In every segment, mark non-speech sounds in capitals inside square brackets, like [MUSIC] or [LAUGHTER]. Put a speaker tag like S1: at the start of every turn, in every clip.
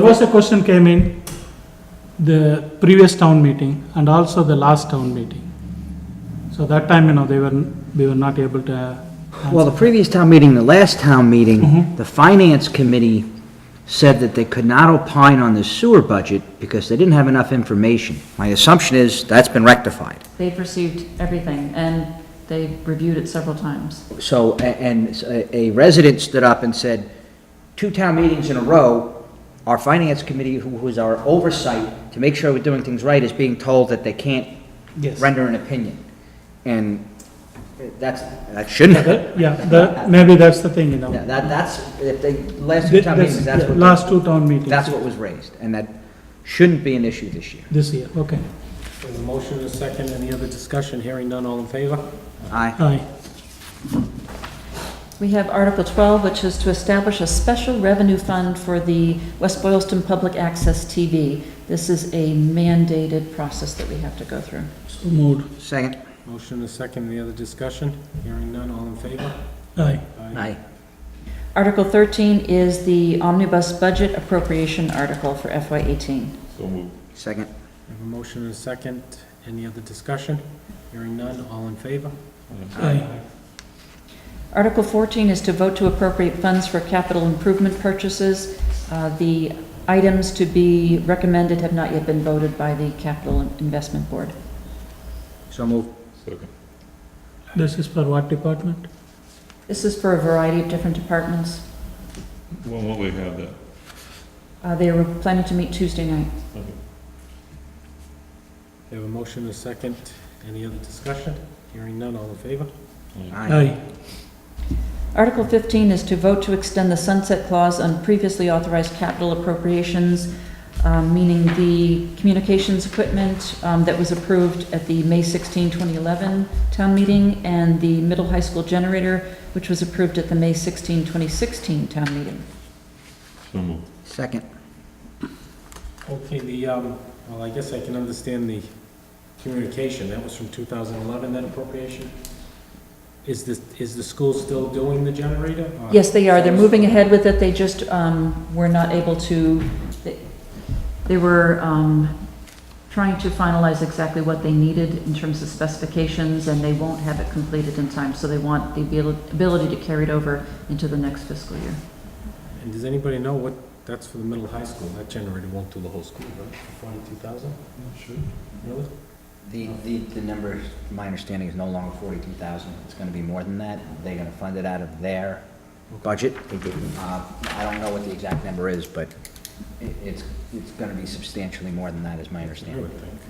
S1: There was a question came in the previous town meeting and also the last town meeting. So that time, you know, they were, we were not able to. uh,
S2: Well, the previous town meeting, the last town meeting,
S1: Mm-hmm.
S2: the finance committee said that they could not opine on the sewer budget because they didn't have enough information. My assumption is that's been rectified.
S3: They've received everything, and they reviewed it several times.
S2: So, a- and s- a a resident stood up and said, two town meetings in a row, our finance committee, who who is our oversight to make sure we're doing things right, is being told that they can't
S1: Yes.
S2: render an opinion. And that's, that shouldn't happen.
S1: Yeah, the, maybe that's the thing, you know.
S2: [LAUGHS] Yeah, That, that's, if they, last two town meetings, that's
S1: That's-
S2: what.
S1: yeah, Last two town meetings.
S2: That's what was raised, and that shouldn't be an issue this year.
S1: This year, okay.
S4: There's a motion and a second, any other discussion, hearing none, all in favor?
S2: Aye.
S1: Aye.
S3: We have Article 12, which is to establish a special revenue fund for the West Boylston Public Access TV. This is a mandated process that we have to go through.
S1: So moved.
S2: Second?
S4: Motion and a second, any other discussion, hearing none, all in favor?
S1: Aye.
S2: Aye.
S3: Article 13 is the omnibus budget appropriation article for FY18.
S5: So moved.
S2: Second?
S4: I have a motion and a second, any other discussion, hearing none, all in favor?
S1: Aye.
S3: Article 14 is to vote to appropriate funds for capital improvement purchases. Uh, The items to be recommended have not yet been voted by the Capital Investment Board.
S2: So move.
S5: Second.
S1: This is for what department?
S3: This is for a variety of different departments.
S5: When will we have that?
S3: Uh, They were planning to meet Tuesday night.
S4: I have a motion and a second, any other discussion, hearing none, all in favor?
S5: uh,
S1: Aye.
S3: Article 15 is to vote to extend the sunset clause on previously authorized capital appropriations, um, meaning the communications equipment um, that was approved at the May 16, 2011 town meeting, and the middle high school generator, which was approved at the May 16, 2016 town meeting.
S5: So moved.
S2: Second?
S4: Okay, the, um, well, I guess I can understand the communication, that was from 2011, that appropriation? Is the, is the school still doing the generator? or-
S3: Yes, they are, they're moving ahead with it, they just um, were not able to, they- they were um, trying to finalize exactly what they needed in terms of specifications, and they won't have it completed in time, so they want the abil- ability to carry it over into the next fiscal year.
S4: And does anybody know what, that's for the middle high school, that generator won't do the whole school, right? Forty-two thousand, really?
S2: The, the, the number, my understanding, is no longer forty-two thousand. It's gonna be more than that. They're gonna fund it out of their budget. Uh, I don't know what the exact number is, but it, it's, it's gonna be substantially more than that, is my
S4: I
S2: understanding.
S4: would think.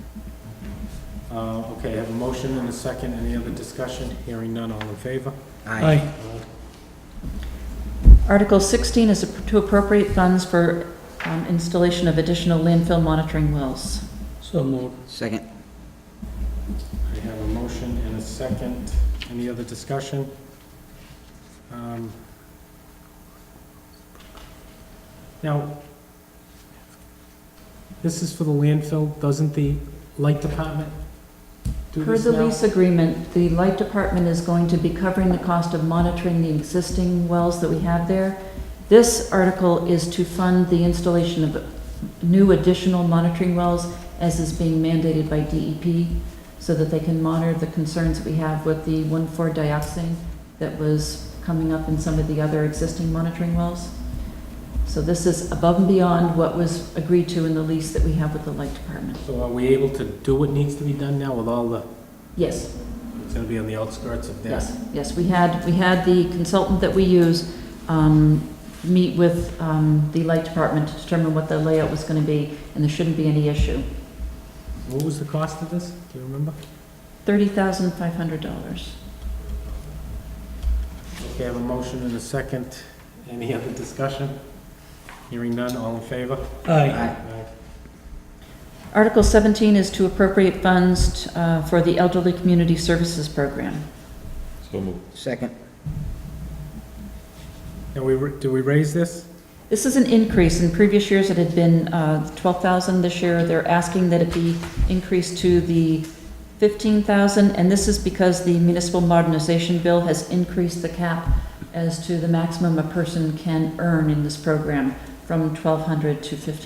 S4: Uh, okay, I have a motion and a second, any other discussion? Hearing none, all in favor?
S1: Aye.
S3: Article 16 is to appropriate funds for um, installation of additional landfill monitoring wells.
S1: So moved.
S2: Second?
S4: I have a motion and a second, any other discussion? Um, Now, this is for the landfill, doesn't the light department do
S3: Per
S4: this
S3: the
S4: now?
S3: lease agreement, the light department is going to be covering the cost of monitoring the existing wells that we have there. This article is to fund the installation of new additional monitoring wells as is being mandated by DEP so that they can monitor the concerns that we have with the 1,4-dioxane that was coming up in some of the other existing monitoring wells. So this is above and beyond what was agreed to in the lease that we have with the light department.
S4: So are we able to do what needs to be done now with all the,
S3: Yes?
S4: it's gonna be on the outskirts of this?
S3: Yes, yes, we had, we had the consultant that we use um, meet with um, the light department to determine what the layout was going to be, and there shouldn't be any issue.
S4: What was the cost of this? Do you remember?
S3: $30,500.
S4: Okay, I have a motion and a second. Any other discussion? Hearing none, all in favor?
S1: Aye.
S3: Article 17 is to appropriate funds uh, for the Elderly Community Services Program.
S5: So moved.
S2: Second?
S4: Now, we, ra- do we raise this?
S3: This is an increase. In previous years, it had been uh, 12,000. This year, they're asking that it be increased to the 15,000, and this is because the municipal modernization bill has increased the cap as to the maximum a person can earn in this program from 1,200 to 1,500.